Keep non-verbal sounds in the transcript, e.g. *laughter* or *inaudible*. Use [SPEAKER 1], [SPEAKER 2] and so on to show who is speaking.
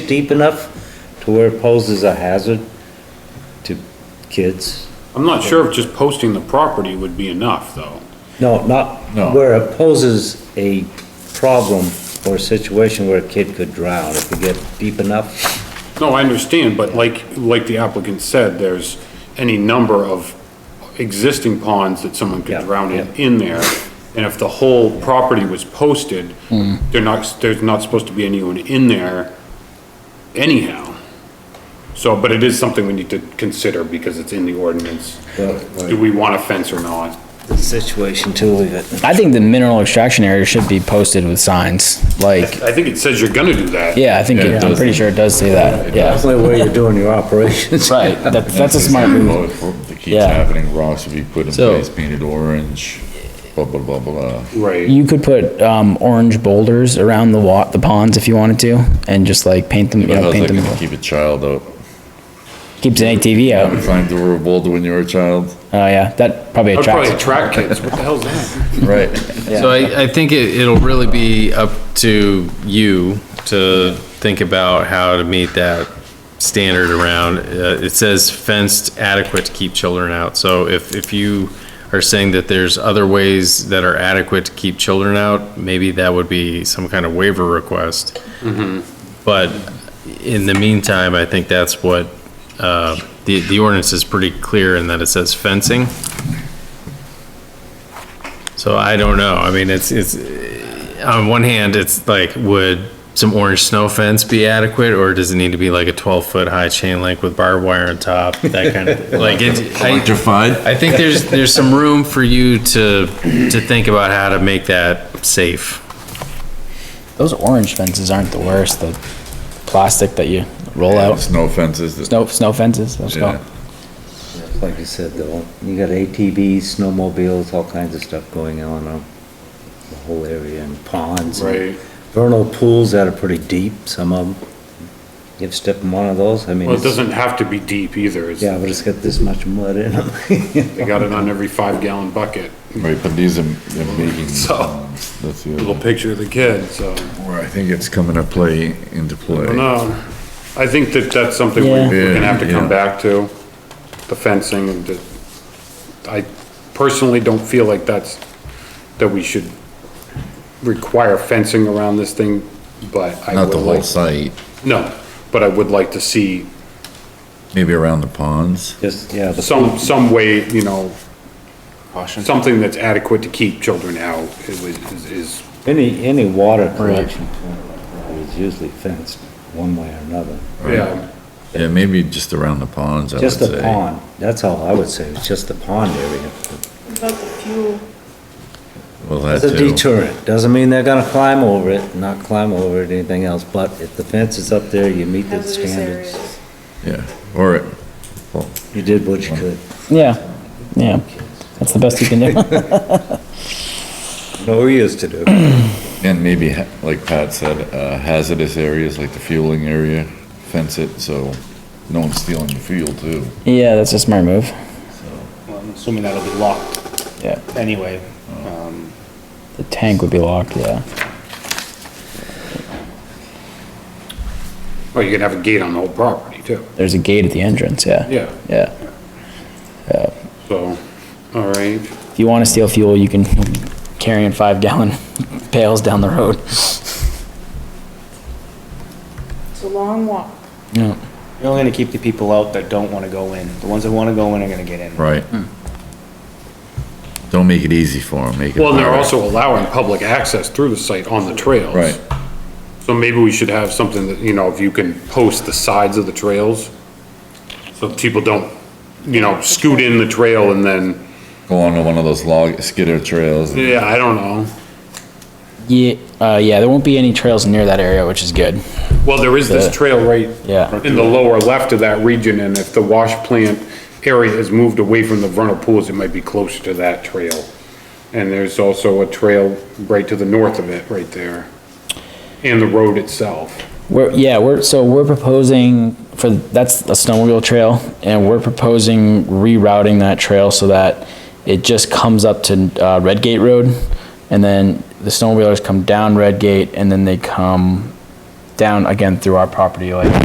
[SPEAKER 1] deep enough to where it poses a hazard to kids?
[SPEAKER 2] I'm not sure if just posting the property would be enough, though.
[SPEAKER 1] No, not
[SPEAKER 3] No.
[SPEAKER 1] where it poses a problem or a situation where a kid could drown if you get deep enough.
[SPEAKER 2] No, I understand, but like, like the applicant said, there's any number of existing ponds that someone
[SPEAKER 1] Yeah,
[SPEAKER 2] could drown in,
[SPEAKER 1] yeah.
[SPEAKER 2] in there. And if the whole property was posted, they're not, there's not supposed to be anyone in there anyhow. So, but it is something we need to consider because it's in the ordinance. Do we want a fence or not?
[SPEAKER 1] Situation too, leave it.
[SPEAKER 4] I think the mineral extraction area should be posted with signs, like,
[SPEAKER 2] I think it says you're gonna do that.
[SPEAKER 4] yeah, I think,
[SPEAKER 3] Yeah, it
[SPEAKER 4] it- I'm
[SPEAKER 3] does.
[SPEAKER 4] pretty sure it does say that, yeah.
[SPEAKER 1] That's the only way you're doing your operations. *laughs*
[SPEAKER 4] Right, that, that's a smart move.
[SPEAKER 3] That keeps
[SPEAKER 4] Yeah.
[SPEAKER 3] happening, rocks will be put in
[SPEAKER 4] So-
[SPEAKER 3] place, painted orange, blah, blah, blah, blah.
[SPEAKER 2] Right,
[SPEAKER 4] You could put, um, orange boulders around the wa, the ponds if you wanted to, and just like paint them, you
[SPEAKER 3] But
[SPEAKER 4] know,
[SPEAKER 3] how's
[SPEAKER 4] paint
[SPEAKER 3] that
[SPEAKER 4] them,
[SPEAKER 3] gonna keep a child out?
[SPEAKER 4] keeps an ATV out,
[SPEAKER 3] Climbed over a boulder when you were a child,
[SPEAKER 4] oh yeah, that probably
[SPEAKER 2] that'd probably
[SPEAKER 4] attracts.
[SPEAKER 2] attract kids, what the hell's that?
[SPEAKER 3] right?
[SPEAKER 5] So I, I think it, it'll really be up to you to think about how to meet that standard around, uh, it says fenced adequate to keep children out. So if, if you are saying that there's other ways that are adequate to keep children out, maybe that would be some kind of waiver request. But in the meantime, I think that's what, uh, the, the ordinance is pretty clear in that it says fencing. So I don't know. I mean, it's, it's, on one hand, it's like, would some orange snow fence be adequate? Or does it need to be like a twelve foot high chain link with barbed wire on top? That kind of, like, it, I,
[SPEAKER 3] Electrified.
[SPEAKER 5] I think there's, there's some room for you to, to think about how to make that safe.
[SPEAKER 4] Those orange fences aren't the worst, the plastic that you roll out,
[SPEAKER 3] Snow fences. that-
[SPEAKER 4] snow, snow fences, that's
[SPEAKER 3] Yeah.
[SPEAKER 4] called.
[SPEAKER 1] Like you said, though, you got ATVs, snowmobiles, all kinds of stuff going on, uh, the whole area and ponds. and
[SPEAKER 2] Right.
[SPEAKER 1] Vernal pools that are pretty deep, some of them. You have step in one of those, I mean.
[SPEAKER 2] Well, it
[SPEAKER 1] it's-
[SPEAKER 2] doesn't have to be deep either, it's,
[SPEAKER 1] Yeah, but it's got this much mud in them.
[SPEAKER 2] they got it on every five gallon bucket.
[SPEAKER 3] Right, but these are, they're making,
[SPEAKER 2] *laughs* So-
[SPEAKER 3] that's the
[SPEAKER 2] little
[SPEAKER 3] other,
[SPEAKER 2] picture of the kid, so,
[SPEAKER 3] where I think it's coming to play, into play.
[SPEAKER 2] no, I think that that's something we-
[SPEAKER 4] Yeah.
[SPEAKER 2] we're gonna have to
[SPEAKER 3] Yeah.
[SPEAKER 2] come back to, the fencing, and the- I personally don't feel like that's, that we should require fencing around this thing, but I
[SPEAKER 3] Not
[SPEAKER 2] would
[SPEAKER 3] the whole
[SPEAKER 2] like,
[SPEAKER 3] site,
[SPEAKER 2] no, but I would like to see
[SPEAKER 3] maybe around the ponds.
[SPEAKER 1] *laughs* Just, yeah, the
[SPEAKER 2] some, some way, you know, something that's adequate to keep children out, is, is- is,
[SPEAKER 1] Any, any water collection point is usually fenced one way or another.
[SPEAKER 2] yeah,
[SPEAKER 3] Yeah, maybe just around the ponds, I would
[SPEAKER 1] Just
[SPEAKER 3] say.
[SPEAKER 1] the pond, that's all I would say, it's just the pond area.
[SPEAKER 6] About the fuel,
[SPEAKER 3] Well, that
[SPEAKER 1] It's a
[SPEAKER 3] too.
[SPEAKER 1] deterrent, doesn't mean they're gonna climb over it, not climb over it, anything else, but if the fence is up there, you meet the
[SPEAKER 6] hazardous
[SPEAKER 1] standards.
[SPEAKER 6] areas.
[SPEAKER 3] Yeah, or,
[SPEAKER 1] You did what you could.
[SPEAKER 4] Yeah, yeah, that's the best you can do.
[SPEAKER 1] No, we used to do.
[SPEAKER 3] and maybe, ha- like Pat said, uh, hazardous areas like the fueling area, fence it so no one's stealing your fuel too.
[SPEAKER 4] Yeah, that's a smart move,
[SPEAKER 7] Well, I'm assuming that'll be locked
[SPEAKER 4] yeah.
[SPEAKER 7] anyway. Um,
[SPEAKER 4] The tank would be locked, yeah.
[SPEAKER 2] or you can have a gate on the whole property, too.
[SPEAKER 4] There's a gate at the entrance, yeah.
[SPEAKER 2] Yeah.
[SPEAKER 4] Yeah.
[SPEAKER 2] So, all right,
[SPEAKER 4] If you want to steal fuel, you can carry in five gallon *laughs* pails down the road.
[SPEAKER 6] It's a long walk.
[SPEAKER 4] Yeah.
[SPEAKER 7] You're only gonna keep the people out that don't wanna go in. The ones that wanna go in are gonna get in.
[SPEAKER 3] Right. Don't make it easy for them, make it.
[SPEAKER 2] well, and they're
[SPEAKER 3] harder.
[SPEAKER 2] also allowing public access through the site on the trails.
[SPEAKER 3] Right,
[SPEAKER 2] So maybe we should have something that, you know, if you can post the sides of the trails, so people don't, you know, scoot in the trail and then,
[SPEAKER 3] go onto one of those log, skidder trails. and-
[SPEAKER 2] yeah, I don't know.
[SPEAKER 4] Yeah, uh, yeah, there won't be any trails near that area, which is good.
[SPEAKER 2] Well, there is this trail right
[SPEAKER 4] Yeah.
[SPEAKER 2] in the lower left of that region, and if the wash plant area is moved away from the vernal pools, it might be closer to that trail. And there's also a trail right to the north of it, right there, and the road itself.
[SPEAKER 4] We're, yeah, we're, so we're proposing for, that's a snowmobile trail, and we're proposing rerouting that trail so that it just comes up to, uh, Redgate Road, and then the snowmobilers come down Redgate, and then they come down again through our property, like